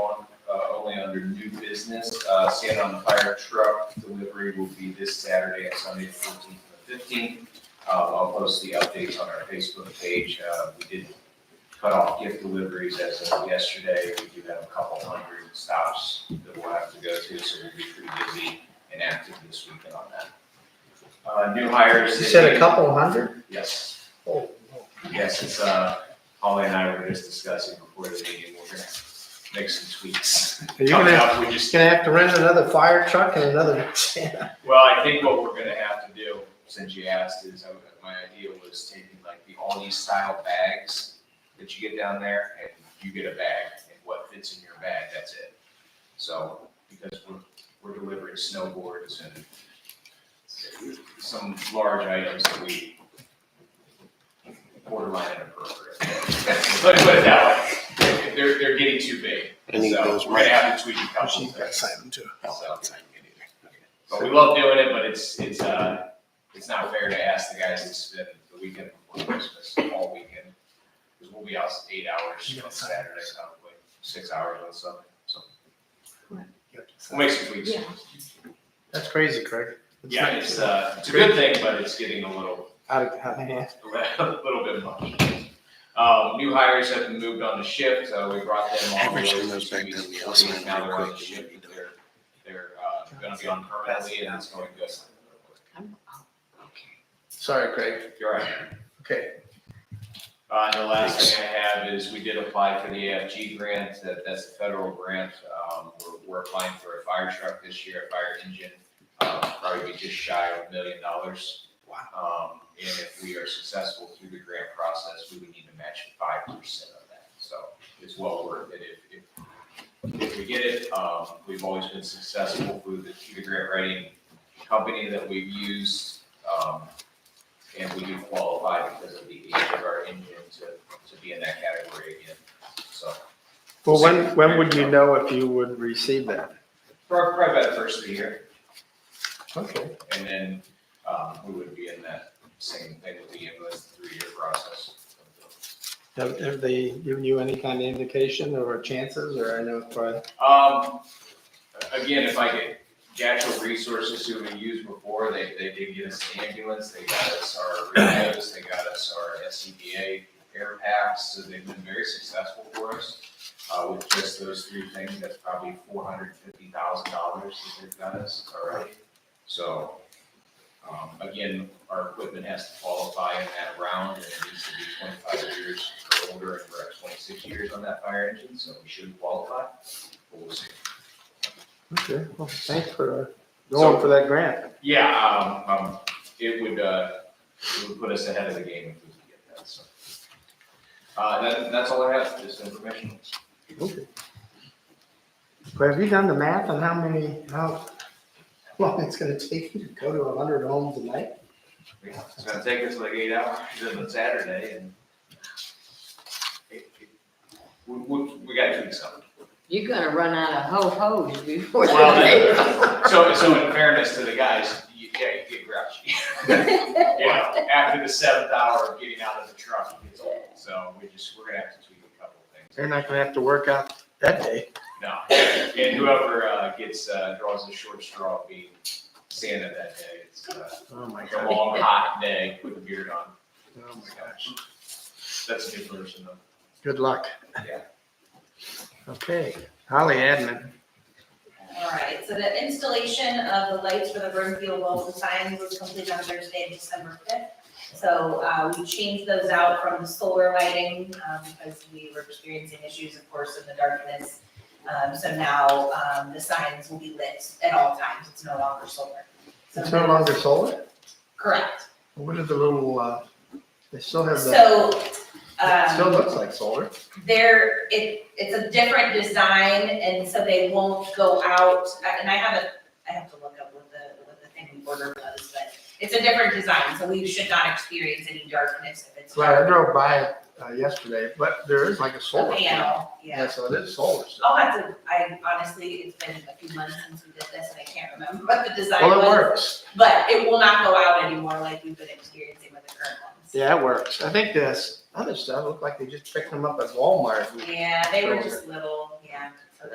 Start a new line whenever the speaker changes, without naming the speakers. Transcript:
uh, under new business, uh, sand on the fire truck delivery will be this Saturday and Sunday, fourteenth and fifteenth. Uh, I'll post the updates on our Facebook page. Uh, we did cut off gift deliveries as of yesterday. We do have a couple hundred stops that we'll have to go to, so we'll be pretty busy and active this weekend on that. Uh, new hires.
You
that
said
we-
a couple hundred?
Yes.
Oh,
Yes, it's, uh, Holly and I were just discussing before the meeting, we're gonna make some tweaks.
Are you gonna,
Coming
have-
up, we
just
just,
gonna have to rent another fire truck and another,
well, I think what we're gonna have to do, since you asked, is I- my idea was taking like the Aldi style bags that you get down there, and you get a bag, and what fits in your bag, that's it. So, because we're, we're delivering snowboards and some large items that we borderline inappropriate. Put it put it that way. They're, they're getting too big.
I need
So
those
We're gonna
right.
have to tweak a couple
She's got
things.
sign them too.
Oh, I'll
sign it either.
But we love doing it, but it's, it's, uh, it's not fair to ask the guys to spend the weekend before Christmas, all weekend. Because we'll be out eight hours on Saturday, probably, six hours on Sunday, so we'll make some tweaks.
Yeah.
that's crazy, Craig. That's
Yeah,
not-
it's, uh, it's a good thing, but it's getting a little
Out of, out of hand.
a little bit much. Um, new hires have been moved on to shift, uh, we brought them on.
Average them
those
those
two
back
weeks
down the
before,
outside
and Now
real
they're on
quick,
the
it should be
shift,
done.
they're, they're, uh, gonna be on permanently and it's going good.
I'm, oh, okay.
Sorry, Craig.
You're right.
Okay,
Uh, and the last thing I have is we did apply for the AFG grant, that, that's a federal grant. Um, we're, we're applying for a fire truck this year, a fire engine, um, probably be just shy of a million dollars. Wow. Um, and if we are successful through the grant process, we would need to match five percent of that. So it's well worth it if, if, if we get it. Um, we've always been successful through the, through the grant writing company that we've used. Um, and we do qualify because of the age of our engine to, to be in that category again, so.
well, when, when would you know if you would receive that?
Probably probably about the first of the year,
Okay.
and then, um, we would be in that same thing with the ambulance three-year process.
Have, have they given you any kind of indication or chances, or I know for,
Um, again, if I get the actual resources who we used before, they, they did get us an ambulance, they got us our radios, they got us our E SCBA air packs, so they've been very successful for us. Uh, with just those three things, that's probably four hundred fifty thousand dollars that they've got us already. So, um, again, our equipment has to qualify in that round, and it needs to be twenty-five years or older, and we're at twenty-six years on that fire engine, so we should qualify. But we'll see.
okay, well, thanks for uh, going for that grant.
Yeah, um, um, it would, uh, it would put us ahead of the game if we could get that, so. Uh, that, that's all I have, just information.
Okay. But have you done the math on how many, how long it's gonna take you to go to a hundred homes a night?
It's gonna take us like eight hours on Saturday and it- it- we, we, we gotta tweak something.
You're gonna run out of ho-hos before the
Well,
day.
So, so in fairness to the guys, you, yeah, you get grouchy. You know, after the seventh hour of getting out of the truck, it gets old, so we just, we're gonna have to tweak a couple of things.
They're not gonna have to work out that day.
No, and whoever uh, gets, uh, draws the short straw being Santa that day, it's uh,
Oh, my
a long, hot day with a beard on.
Oh, my gosh.
That's a new version of.
Good luck.
Yeah.
Okay, Holly Admin.
All right, so the installation of the lights for the Burnfield Walls and Signs was completed on Thursday, December fifth. So, uh, we changed those out from the solar lighting, um, because we were experiencing issues, of course, in the darkness. Um, so now, um, the signs will be lit at all times, it's no longer solar. So-
It's no longer solar?
Correct,
What are the little, uh, they still have the,
so, um.
it still looks like solar.
They're, it, it's a different design, and so they won't go out, I- and I haven't, I have to look up what the, what the thing we ordered was, but it's a different design, so we should not experience any darkness if it's.
Right, I drove by it uh, yesterday, but there is like a
A
solar. panel.
panel,
Yeah,
yeah.
so it is solar. still.
I'll have to, I honestly, it's been a few months since we did this, and I can't remember Oh, what the design
Well, it
was,
works.
but it will not go out anymore like we've been experiencing with the current ones.
Yeah, it works. I think this other stuff looked like they just picked them up at Walmart.
Yeah, they were just little, yeah,